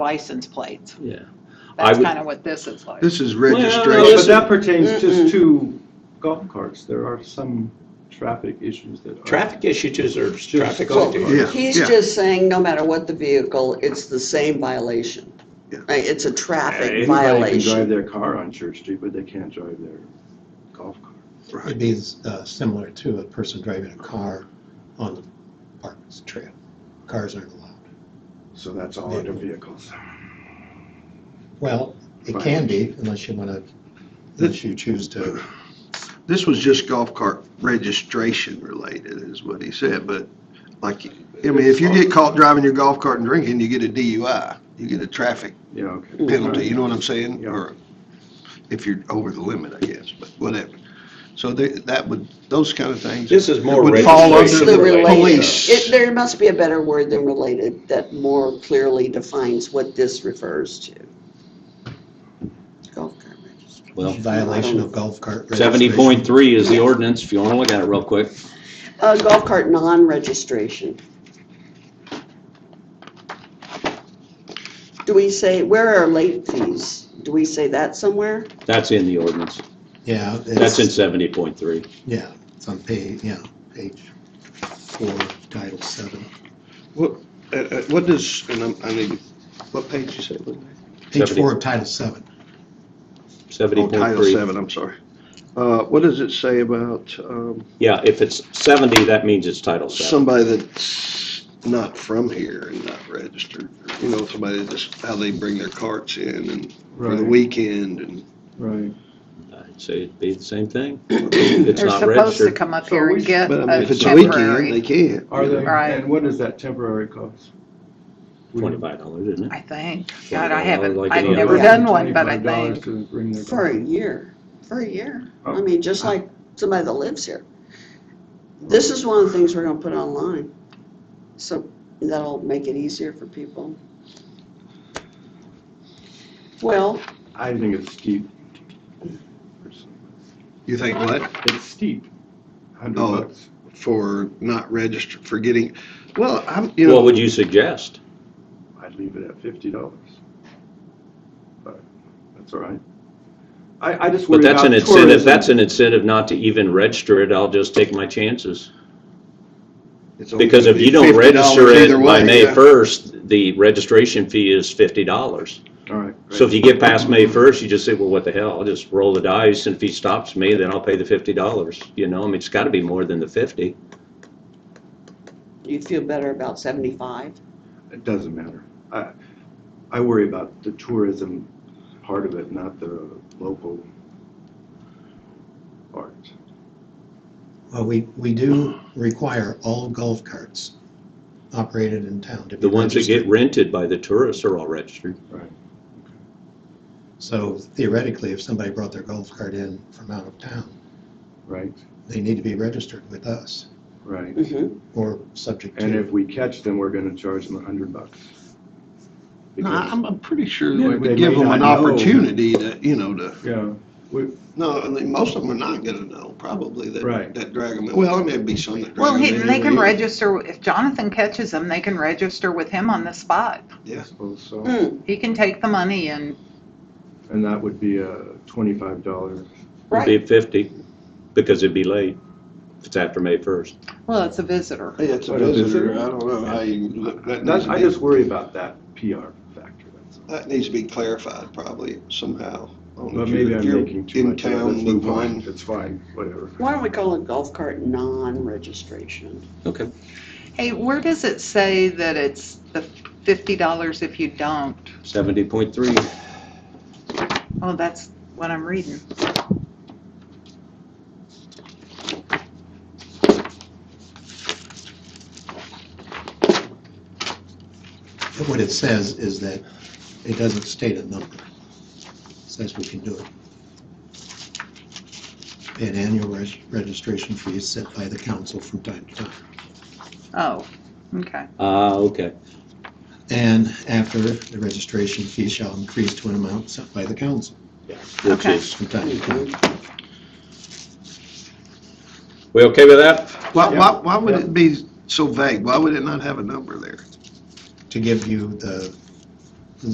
license plates. Yeah. I That's would- kind of what this is like. This is Well, But registration. that pertains just to golf carts. There are some traffic issues that are. Traffic issues or traffic. Well, issues. Yeah, He's yeah. just saying, no matter what the vehicle, it's the same violation. Yeah. Right, It's a traffic Anybody can drive violation. their car on Church Street, but they can't drive their golf cart. Right. It'd be uh, similar to a person driving a car on the park trail. Cars aren't allowed. So that's all under vehicles. Well, it can be unless you want to, unless you choose to. This was just golf cart registration related is what he said, but like, I mean, if you get caught driving your golf cart and drinking, you get a DUI. You get a traffic Yeah, okay. penalty, you know what I'm saying? Yeah. Or if you're over the limit, I guess, but whatever. So they- that would, those kind of things. This is more Would fall under registration The related. related- police. it- There must be a better word than related that more clearly defines what this refers to. Golf cart registration. Well, Violation of golf cart. seventy point three is the ordinance, if you wanna look at it real quick. Uh, golf cart non-registration. Do we say, where are late fees? Do we say that somewhere? That's in the ordinance. registration. Yeah. it's- That's in seventy point three. Yeah, it's on page, yeah, page four, title seven. Uh, uh, What does, and I'm- I need, what page you say? it was? Page Seventy. four of title seven. Seventy Oh, point Title three. seven, I'm sorry. Uh, What does it say about um, Yeah, if it's seventy, that means it's Title seven. somebody that's not from here and not registered? You know, somebody that just, how they bring their carts in and for the Right. weekend and. Right. I'd say it'd be the same thing. It's They're supposed not to registered. come up So here we- and get But I mean, a if it's a weekend, uh, they temporary, can't. Are they, Right. and what is that temporary cost? Twenty-five dollars, isn't I it? think. God, I $25 haven't, like I've any never other. done one, but I $25 think, to bring their For a golf- year, for a year. I Oh. mean, just like somebody that lives here. This is one of the things we're gonna put online, so that'll make it easier for people. Well, I think it's steep. You think what? It's steep. Hundred Oh. bucks. For not registered, for getting, well, I'm, you know. What would you suggest? I'd leave it at fifty dollars. But that's all right. I, I just But worry about that's an tourism. incentive, that's an incentive not to even register it. I'll just take my chances. it's only Because gonna if be you don't $50 register either it by way, May yeah. first, the registration fee is fifty dollars. All right. So if you get past May first, you just say, well, what the hell, I'll just roll the dice, and if he stops me, then I'll pay the fifty dollars, you know, I mean, it's gotta be more than the fifty. you feel better about seventy-five? It doesn't matter. I, I worry about the tourism part of it, not the local part. Well, we, we do require all golf carts operated in town to be The ones that registered. get rented by the tourists are all registered. Right. So theoretically, if somebody brought their golf cart in from out of town, Right, they need to be registered with us right. Mm-hmm. or subject And if to. we catch them, we're gonna charge them a hundred bucks. No, Because- I'm, I'm pretty sure Yeah, we they would give may them an not know. opportunity to, you know, to, Yeah, we, no, I mean, most of them are not gonna know, probably, that, Right. that drag them in. Well, there may be some that well, drag them he- in. they can anyway. register, if Jonathan catches them, they can register with him on the spot. Yeah. I suppose so. Hmm. Mm, He can take the money and, And that would be a twenty-five dollar, It'd be fifty, because it'd be late, if it's after May first. well, it's a visitor. Hey, it's a What is it? visitor, I don't know how you, look- that needs that's, I to just worry about that PR factor, that's all. be, that needs to be clarified probably somehow. I don't know if But you're- maybe if I'm you're making too much of In it, let's town, move move on. on, it's fine, whatever. Why don't we call it golf cart non-registration? Okay. Hey, where does it say that it's the fifty dollars if you don't? Seventy point three, Oh, that's what I'm reading. But What it says is that it doesn't state a number. It Says we can do it. Pay an annual reg- registration fee set by the council from time to time. Oh, okay. ah, okay, And after, the registration fee shall increase to an amount set by the council which Okay. is, from time to time. we okay with that? Why, Yeah. why, why would Yeah. it be so vague? Why would it not have a number there? to give you the